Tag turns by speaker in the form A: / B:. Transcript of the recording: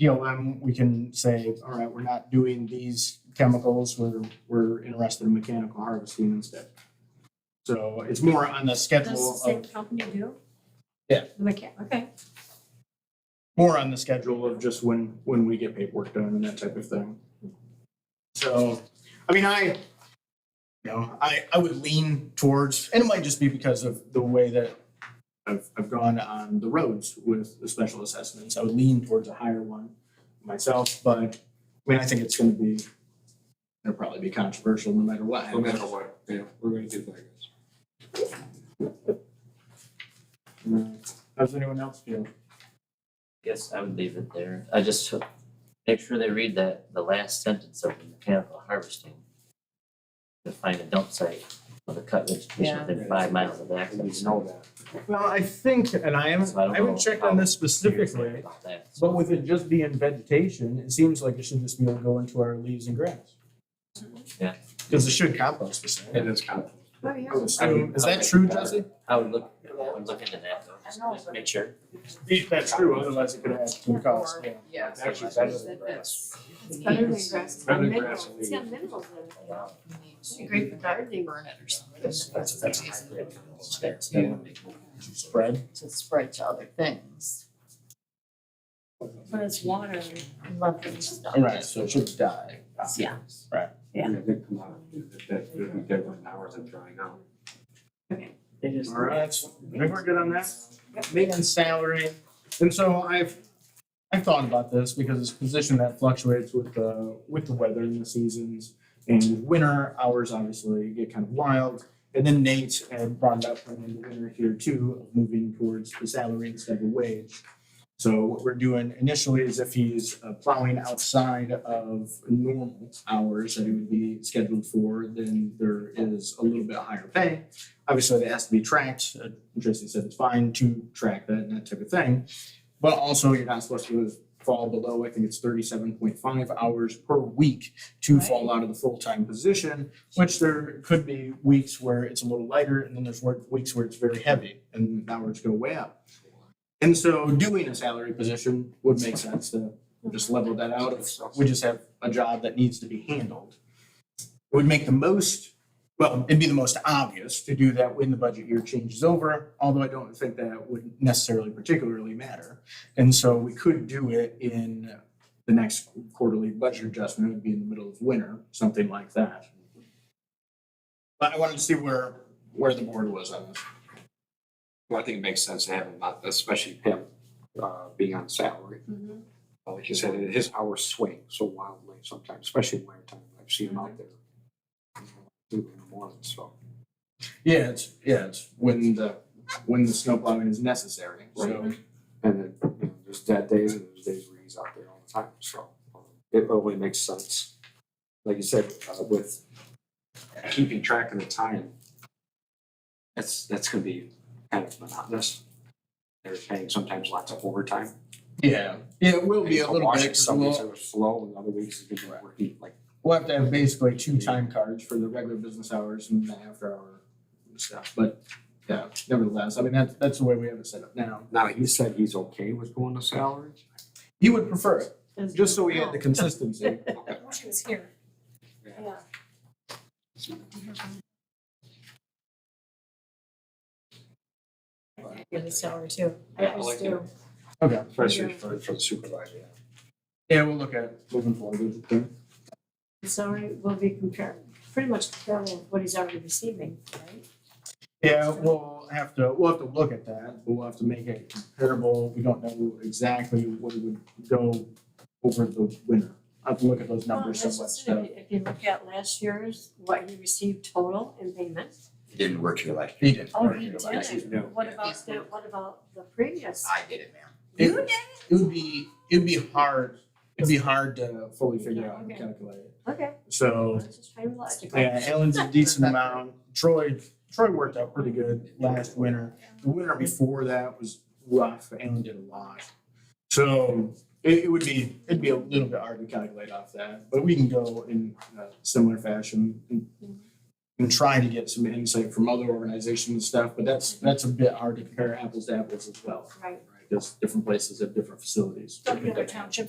A: PLM, we can say, all right, we're not doing these chemicals, we're, we're interested in mechanical harvesting instead. So it's more on the
B: Does the
A: schedule
B: same
A: of,
B: company do?
A: Yeah.
B: The mechan- okay,
A: more on the schedule of just when, when we get paperwork done and that type of thing. So, I mean, I, you know, I, I would lean towards, and it might just be because of the way that I've, I've gone on the roads with the special assessments. I would lean towards a higher one myself, but I mean, I think it's gonna be, it'll probably be controversial no matter what.
C: No matter what, yeah, we're gonna do like this.
A: How's anyone else feel?
D: Guess I would leave it there. I just h- make sure they read that, the last sentence of the mechanical harvesting. To find a dump site for the cut vegetation
B: Yeah.
D: within five miles of the
C: We need
D: access.
C: to know that.
E: Well, I think, and I haven't,
D: So I don't
E: I haven't
D: know
E: checked
D: how
E: on this
D: Serious
E: specifically,
D: about that.
A: But with it just being vegetation, it seems like it should just be able to go into our leaves and grass.
D: Yeah.
A: Cause it should compost the same.
C: It is kind of.
B: oh, yeah.
A: I mean, is that true, Jesse?
D: I would look, I would look into that though, just to make- make sure.
A: That's true, otherwise it could add to the cost.
B: Or- Yeah.
C: Actually,
D: That's
C: better than
B: That-
C: grass.
B: It's better than grass, it's got
C: Better than grass
B: minerals,
C: and
B: it's got minerals in it. It'd be Great for gardening. Burn it or something.
F: That's, that's, that's a hybrid.
D: That's- that would make-
A: Spread.
F: To spread to other things,
B: But it's water,
F: lovely stuff.
A: Right, so it should die.
F: Yeah.
C: I mean, they come out, that, that, would be dead within hours of drying out.
F: They just-
A: Alright, I think we're good on that. Maintenance salary, and so I've, I've thought about this because it's a position that fluctuates with the, with the weather and the seasons. And winter hours obviously get kind of wild, and then Nate had brought it up in the winter here too, of moving towards the salary instead of wage. So what we're doing initially is if he's uh, plowing outside of normal hours that he would be scheduled for, then there is a little bit higher pay. Obviously, that has to be tracked, uh, Tracy said it's fine to track that and that type of thing. But also, you're not supposed to fall below, I think it's thirty-seven point five hours per week to fall out of the full-time position, which there could be weeks where it's a little lighter, and then there's work- weeks where it's very heavy, and hours go way up. And so doing a salary position would make sense to just level that out, if we just have a job that needs to be handled. It would make the most, well, it'd be the most obvious to do that when the budget year changes over, although I don't think that would necessarily particularly matter. And so we could do it in the next quarterly budget adjustment, it would be in the middle of winter, something like that. But I wanted to see where, where the board was on this.
C: Well, I think it makes sense to have him, not- especially him, uh, being on salary.
B: Mhm.
C: Uh, Like you said, his hours swing so wildly sometimes, especially in winter time. I've seen him out there. you know, Two in the morning, so.
A: Yeah, it's, yeah, it's when the, when the snow plowing is necessary, so.
C: And then, you know, there's dead days and there's days where he's out there all the time, so um, it only makes sense. Like you said, uh, with keeping track of the time, that's, that's gonna be kind of monotonous. They're paying sometimes lots of overtime.
A: Yeah, yeah, it will be a
C: So
A: little
C: Washington,
A: bit, 'cause
C: Some weeks
A: we'll,
C: it was slow and other weeks it's been working like
A: we'll have to have basically two time cards for the regular business hours and the after hour stuff, but yeah, nevertheless, I mean, that's, that's the way we have it set up now.
C: Now, he said he's okay with going to salaries?
A: He would prefer it, just so we had the consistency.
B: She was here.
C: Yeah.
B: Yeah. Get a salary too. I
C: Yeah, I
B: always
C: like it.
B: do.
A: Okay,
C: Especially for, for the supervisor, yeah.
A: yeah, we'll look at it moving forward.
B: The Salary will be compared, pretty much comparable with what he's already receiving, right?
A: Yeah, we'll have to, we'll have to look at that. We'll have to make it comparable. We don't know exactly what it would go over the winter. I'll have to look at those
B: Well,
A: numbers
B: that's
A: somewhat.
B: just it. If you- If you look at last year's, what he received total in payment.
G: He didn't work here last
A: He
G: year.
A: did.
B: Oh, he
G: Like,
B: did.
C: Yeah.
B: What about the, what about the previous?
G: I did it, ma'am.
A: It would, it would be, it'd be hard, it'd be hard to fully figure out and
B: Okay.
A: calculate it.
B: Okay, I
A: So,
B: was just trying to be logical.
A: yeah, Ellen's a decent amount. Troy, Troy worked out pretty good last winter. The winter before that was rough. Ellen did a lot. So it, it would be, it'd be a little bit hard to calculate off that, but we can go in a similar fashion and, and try to get some insight from other organizations and stuff, but that's, that's a bit hard to compare apples to apples as well.
B: Right.
C: Right.
H: because different places have different facilities.
A: Don't you have a township